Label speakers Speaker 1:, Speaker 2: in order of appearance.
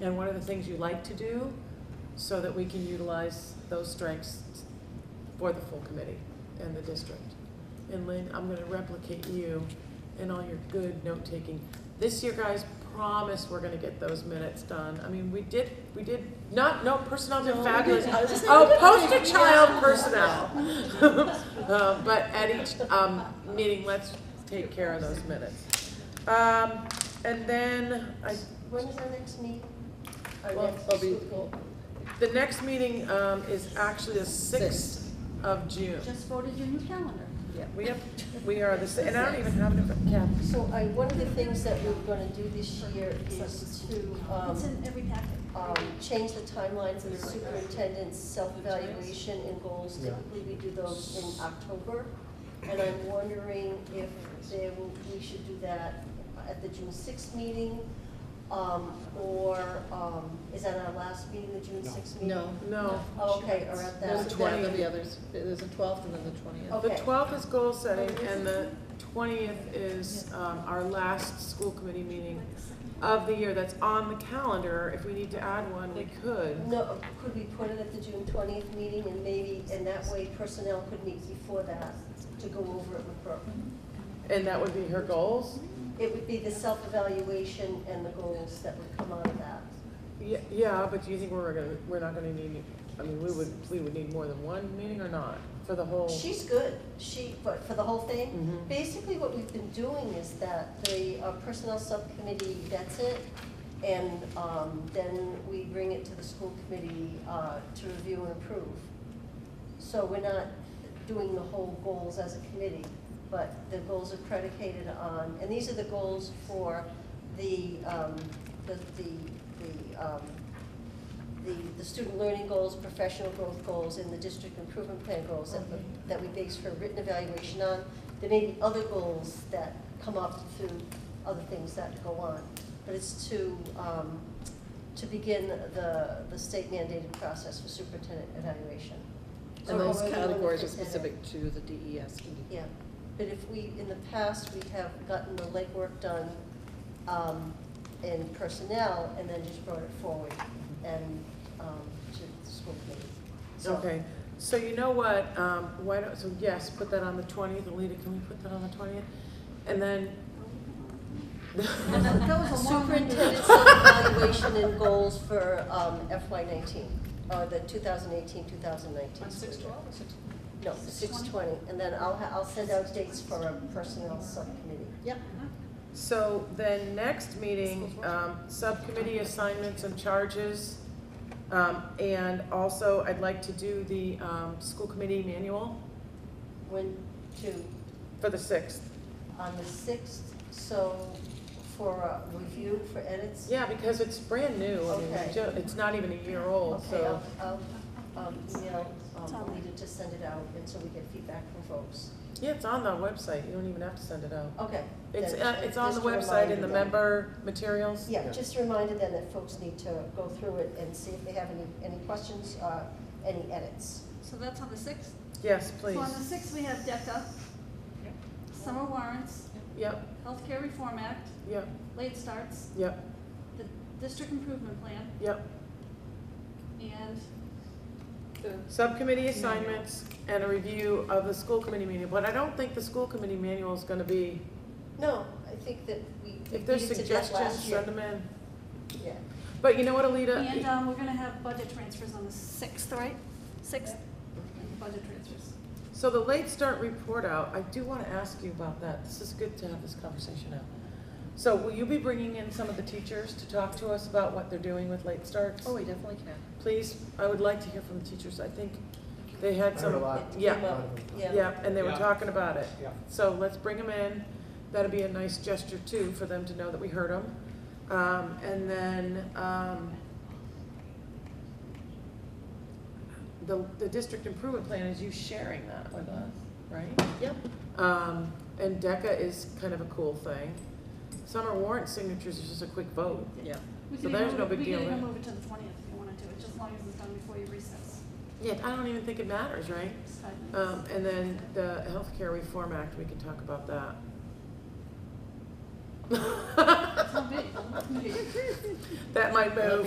Speaker 1: and what are the things you like to do, so that we can utilize those strengths for the full committee and the district. And Lynn, I'm gonna replicate you and all your good note-taking. This year, guys, promise we're gonna get those minutes done. I mean, we did, we did, not, no, personnel did fabulous. Oh, poster child personnel. Uh, But at each um, meeting, let's take care of those minutes. Um, And then, I,
Speaker 2: When is our next meeting? Our
Speaker 1: Well,
Speaker 2: next
Speaker 1: it'll be-
Speaker 2: school-
Speaker 1: the next meeting um, is actually the sixth of June.
Speaker 3: Just voted your new calendar.
Speaker 1: We have, we are the, sa- and I don't even have it, yeah.
Speaker 2: So I, one of the things that we're gonna do this year is to,
Speaker 3: It's
Speaker 2: um,
Speaker 3: in every packet.
Speaker 2: um, change the timelines of the superintendent's self-evaluation and goals. Typically, we do those in October. And I'm wondering if there will, we should do that at the June sixth meeting? Um, or, um, is that our last meeting, the June
Speaker 4: No.
Speaker 2: sixth meeting?
Speaker 5: No,
Speaker 1: No.
Speaker 2: Oh, Okay, or at that.
Speaker 5: there's a
Speaker 1: the
Speaker 5: twelfth of
Speaker 1: 20th.
Speaker 5: the others, there's a twelfth and then the twentieth.
Speaker 1: The
Speaker 2: Okay.
Speaker 1: twelfth Oh, is goal setting, and the twentieth is um, our last school committee meeting of the year that's on the calendar. If we need to add one, we could.
Speaker 2: No, could we put it at the June twentieth meeting and maybe, and that way personnel could meet before that to go over it with her?
Speaker 1: And that would be her goals?
Speaker 2: It would be the self-evaluation and the goals that would come out of that.
Speaker 1: Yeah, yeah, but do you think we're gonna, we're not gonna need, I mean, we would, we would need more than one meeting or not for the whole?
Speaker 2: She's good, she, but for the whole thing,
Speaker 1: Mhm.
Speaker 2: basically what we've been doing is that the uh, personnel subcommittee vets it, and um, then we bring it to the school committee uh, to review and approve. So we're not doing the whole goals as a committee, but the goals are predicated on, and these are the goals for the, um, the, the, the um, the, the student learning goals, professional growth goals, and the district improvement plan goals that, we- that we base her written evaluation on. There may be other goals that come up through other things that go on, but it's to, um, to begin the, the state mandated process for superintendent evaluation.
Speaker 5: And those
Speaker 2: Or- or the
Speaker 5: categories are
Speaker 2: superintendent.
Speaker 5: specific to the E DES.
Speaker 2: Yeah, but if we, in the past, we have gotten the legwork done um, in personnel and then just brought it forward and um, to the school committee. So-
Speaker 1: Okay, so you know what, um, why don't, so yes, put that on the twentieth, Alita, can we put that on the twentieth? And then,
Speaker 3: That was a long one.
Speaker 2: Superintendent self-evaluation and goals for FY nineteen, or the 2018-2019.
Speaker 6: six twelve or six?
Speaker 2: No, six twenty, and then I'll, ha- I'll send out dates for a personnel subcommittee.
Speaker 5: Yep.
Speaker 1: so then next meeting, um, subcommittee assignments and charges. Um, and also I'd like to do the, um, school committee manual
Speaker 2: When, to,
Speaker 1: for the sixth.
Speaker 2: on the sixth, so for uh, review, for edits?
Speaker 1: Yeah, because it's brand new, I mean,
Speaker 2: Okay.
Speaker 1: ju- it's not even a year old,
Speaker 2: Okay,
Speaker 1: so.
Speaker 2: I'll, I'll, um, email, um, Lita to send it out, and so we get feedback from folks.
Speaker 1: Yeah, it's on the website, you don't even have to send it out.
Speaker 2: Okay.
Speaker 1: It's,
Speaker 2: then,
Speaker 1: uh, it's on the
Speaker 2: just a
Speaker 1: website in
Speaker 2: reminder
Speaker 1: the
Speaker 2: then.
Speaker 1: member materials.
Speaker 2: Yeah, just a reminder then that folks need to go through it and see if they have any, any questions, uh, any edits.
Speaker 3: So that's on the sixth?
Speaker 1: Yes,
Speaker 3: So on the
Speaker 1: please.
Speaker 3: sixth, we have DECA, summer warrants,
Speaker 1: Yep,
Speaker 3: healthcare reform act,
Speaker 1: yep,
Speaker 3: late starts,
Speaker 1: yep,
Speaker 3: the district improvement plan,
Speaker 1: yep.
Speaker 3: and
Speaker 1: Subcommittee assignments and a review of the school committee manual, but I don't think the school committee manual is gonna be,
Speaker 2: No, I think that we, we
Speaker 1: if there's
Speaker 2: did it that
Speaker 1: suggestions,
Speaker 2: last year. uh,
Speaker 1: send them in.
Speaker 2: Yeah,
Speaker 1: But you know what,
Speaker 3: and,
Speaker 1: Alita?
Speaker 3: um, we're gonna have budget transfers on the sixth, right? Sixth, budget transfers.
Speaker 1: So the late start report out, I do wanna ask you about that. This is good to have this conversation out. So will you be bringing in some of the teachers to talk to us about what they're doing with late starts?
Speaker 5: Oh, we definitely can.
Speaker 1: Please, I would like to hear from the teachers. I think they had
Speaker 4: I heard a
Speaker 1: some,
Speaker 4: lot.
Speaker 1: yeah.
Speaker 2: Came up, yeah.
Speaker 1: yeah, and they were
Speaker 4: Yeah.
Speaker 1: talking about it.
Speaker 4: Yeah.
Speaker 1: So let's bring them in. That'd be a nice gesture too, for them to know that we heard them. Um, and then, um, the, the district improvement plan is you sharing that with us, right?
Speaker 5: Yep.
Speaker 1: Um, and DECA is kind of a cool thing. Summer warrant signatures is just a quick vote.
Speaker 5: Yeah.
Speaker 3: We
Speaker 1: So
Speaker 3: could
Speaker 1: there's
Speaker 3: even
Speaker 1: no
Speaker 3: move,
Speaker 1: big
Speaker 3: it- we could
Speaker 1: deal
Speaker 3: even
Speaker 1: there.
Speaker 3: move it to the twentieth if you wanted to, it's just long as it's done before you recess.
Speaker 1: Yeah, I don't even think it matters, right?
Speaker 3: It's five minutes.
Speaker 1: Um, and then the Healthcare Reform Act, we can talk about that.
Speaker 3: It's not big.
Speaker 1: That might move.